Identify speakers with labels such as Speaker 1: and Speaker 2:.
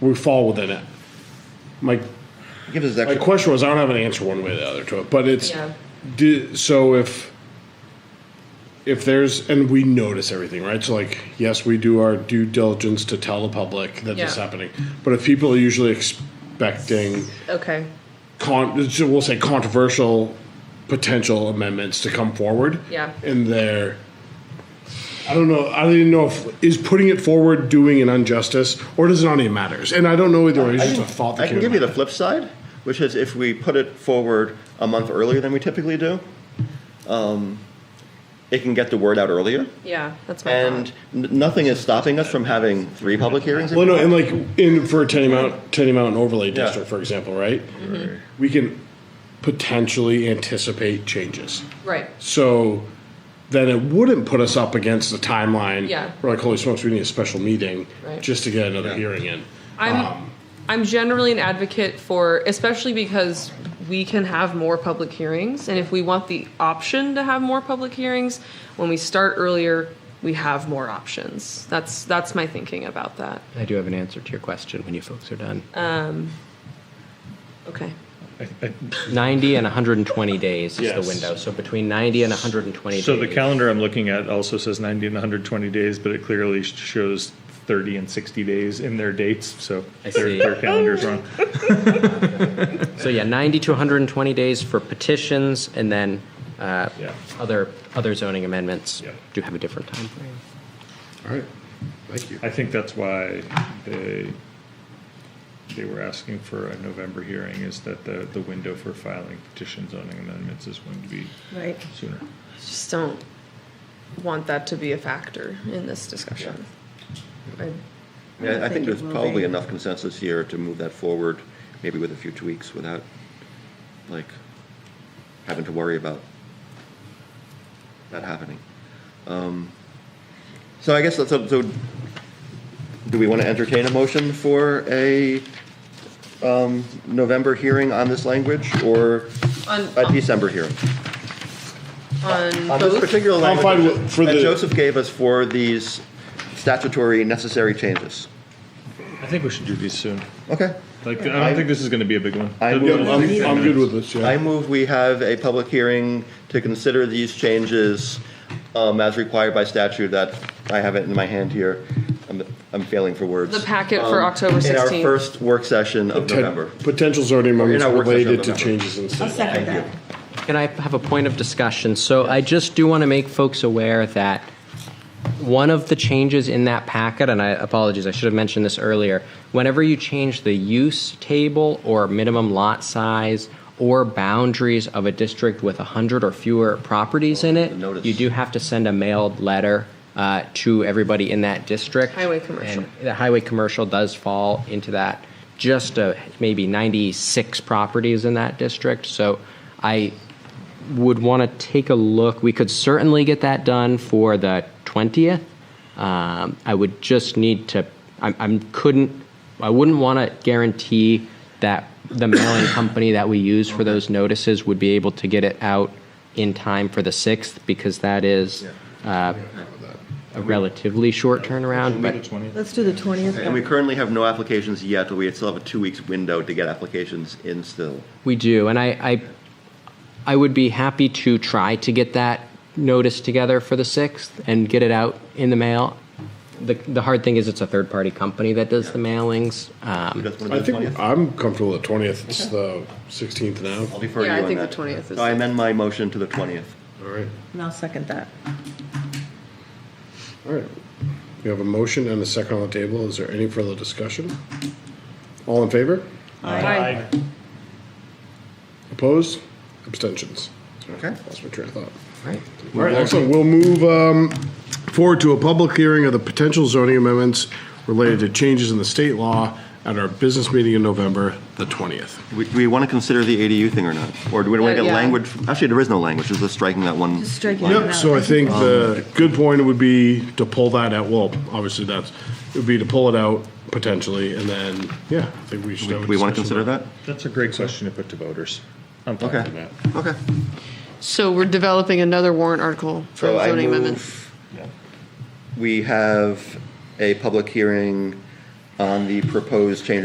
Speaker 1: we fall within it. My
Speaker 2: Give us
Speaker 1: my
Speaker 2: extra.
Speaker 1: question was I don't have an answer one way or the other to it, but it's
Speaker 3: Yeah.
Speaker 1: do, so if if there's and we notice everything right so like yes we do our due diligence to tell the public that this is
Speaker 3: Yeah.
Speaker 1: happening but if people are usually expecting
Speaker 3: Okay.
Speaker 1: con- so we'll say controversial potential amendments to come forward.
Speaker 3: Yeah.
Speaker 1: And they're, I don't know, I don't even know if, is putting it forward doing an injustice or does it not even matters? And I don't know either way, it's just a thought that
Speaker 2: I can
Speaker 1: came
Speaker 2: give you
Speaker 1: to
Speaker 2: the flip side, which is if we put it forward a month earlier than we typically do, um, it can get the word out earlier.
Speaker 3: Yeah, that's my
Speaker 2: And
Speaker 3: thought.
Speaker 2: n- nothing is stopping us from having three public hearings.
Speaker 1: Well, no, and like in for a Tenny Mountain, Tenny Mountain overlay
Speaker 2: Yeah.
Speaker 1: district, for example, right? We can potentially anticipate changes.
Speaker 3: Right.
Speaker 1: So then it wouldn't put us up against the timeline.
Speaker 3: Yeah.
Speaker 1: We're like, holy smokes, we need a special meeting
Speaker 3: Right.
Speaker 1: just to get another hearing in.
Speaker 3: I'm
Speaker 2: Um,
Speaker 3: I'm generally an advocate for especially because we can have more public hearings and if we want the option to have more public hearings when we start earlier we have more options. That's that's my thinking about that.
Speaker 4: I do have an answer to your question when you folks are done.
Speaker 3: Okay.
Speaker 4: 90 and 120 days is
Speaker 1: Yes.
Speaker 4: the window. So between 90 and 120
Speaker 5: So
Speaker 4: days.
Speaker 5: the calendar I'm looking at also says 90 and 120 days, but it clearly sh- shows 30 and 60 days in their dates, so
Speaker 4: I
Speaker 5: their,
Speaker 4: see.
Speaker 5: their calendar's wrong.
Speaker 4: So yeah, 90 to 120 days for petitions and then uh,
Speaker 5: Yeah.
Speaker 4: other other zoning amendments
Speaker 5: Yeah.
Speaker 4: do have a different time frame.
Speaker 1: All right. Thank you.
Speaker 5: I think that's why they, they were asking for a November hearing, is that the, the window for filing petition zoning amendments is going to be
Speaker 3: Right.
Speaker 5: sooner.
Speaker 3: Just don't want that to be a factor in this discussion. I-
Speaker 2: Yeah, I think there's
Speaker 6: it will
Speaker 2: probably
Speaker 6: be.
Speaker 2: enough consensus here to move that forward, maybe with a few tweaks without, like, having to worry about that happening. Um, So I guess that's, up- so, do we want to entertain a motion for a um, November hearing on this language or
Speaker 3: On-
Speaker 2: a December hearing?
Speaker 3: On
Speaker 2: On this
Speaker 3: both,
Speaker 2: particular
Speaker 1: I'm fine
Speaker 2: language
Speaker 1: with- for
Speaker 2: that
Speaker 1: the-
Speaker 2: Joseph gave us for these statutory necessary changes.
Speaker 5: I think we should do these soon.
Speaker 2: Okay.
Speaker 5: Like, I don't think this is going to be a big one.
Speaker 2: I
Speaker 5: The-
Speaker 1: Yeah,
Speaker 2: will-
Speaker 1: I'm, I'm good with this,
Speaker 2: I
Speaker 1: yeah.
Speaker 2: move we have a public hearing to consider these changes um, as required by statute that, I have it in my hand here, I'm, I'm failing for words.
Speaker 3: the packet for October
Speaker 2: Um, In our
Speaker 3: 16th.
Speaker 2: first work session of
Speaker 1: Ten-
Speaker 2: November.
Speaker 1: Potential zoning amendments
Speaker 2: our work session
Speaker 1: related to
Speaker 2: on November.
Speaker 1: changes in
Speaker 6: I'll
Speaker 1: state.
Speaker 6: second that.
Speaker 4: Can I have a point of discussion? So I just do want to make folks aware that one of the changes in that packet, and I apologize, I should have mentioned this earlier, whenever you change the use table or minimum lot size or boundaries of a district with 100 or fewer properties in it,
Speaker 2: notice.
Speaker 4: you do have to send a mailed letter uh, to everybody in that district.
Speaker 3: Highway commercial.
Speaker 4: And the highway commercial does fall into that, just uh, maybe 96 properties in that district. So I would want to take a look. We could certainly get that done for the 20th. Um, I would just need to, I, I couldn't, I wouldn't want to guarantee that the mailing company that we use for those notices would be able to get it out in time for the 6th because that is uh, a relatively short turnaround. But
Speaker 5: the 20th.
Speaker 6: Let's do the
Speaker 2: And we
Speaker 6: 20th.
Speaker 2: currently have no applications yet, but we still have a two weeks window to get applications in still.
Speaker 4: We do, and I, I, I would be happy to try to get that notice together for the sixth and get it out in the mail. The, the hard thing is it's a third-party company that does the mailings.
Speaker 2: You
Speaker 4: Um,
Speaker 2: guys wanna
Speaker 1: I
Speaker 2: do
Speaker 1: think
Speaker 2: 20th?
Speaker 1: I'm comfortable at twentieth, it's the sixteenth now.
Speaker 2: I'll defer to you
Speaker 3: Yeah, I
Speaker 2: on that.
Speaker 3: think the 20th is-
Speaker 2: So I amend my motion to the 20th.
Speaker 1: All right,
Speaker 6: And I'll second that.
Speaker 1: all right. We have a motion and a second on the table. Is there any further discussion? All in favor?
Speaker 3: Aye.
Speaker 1: Opposed? Abstentions?
Speaker 2: Okay.
Speaker 1: Lost my train of thought.
Speaker 4: right.
Speaker 1: All right, excellent. We'll move um, forward to a public hearing of the potential zoning amendments related to changes in the state law at our business meeting in November, the 20th.
Speaker 2: We- Do we want to consider the ADU thing or not? Or do we want
Speaker 3: Uh,
Speaker 2: to get
Speaker 3: yeah.
Speaker 2: language? Actually, there is no language, it's just striking that one.
Speaker 6: Just striking
Speaker 2: line.
Speaker 6: it
Speaker 1: Yep, so I think the good point would be to pull that out, well, obviously that's, it would be to pull it out potentially, and then, yeah, I think we should. have a
Speaker 2: Do we want to
Speaker 1: discussion
Speaker 2: consider
Speaker 1: about
Speaker 2: that?
Speaker 5: That's a great question to put to voters. I'm fine
Speaker 2: Okay.
Speaker 5: with that.
Speaker 2: Okay.
Speaker 3: So we're developing another warrant article for
Speaker 2: So I
Speaker 3: zoning
Speaker 2: move-
Speaker 3: amendment.
Speaker 2: We have a public hearing on the proposed change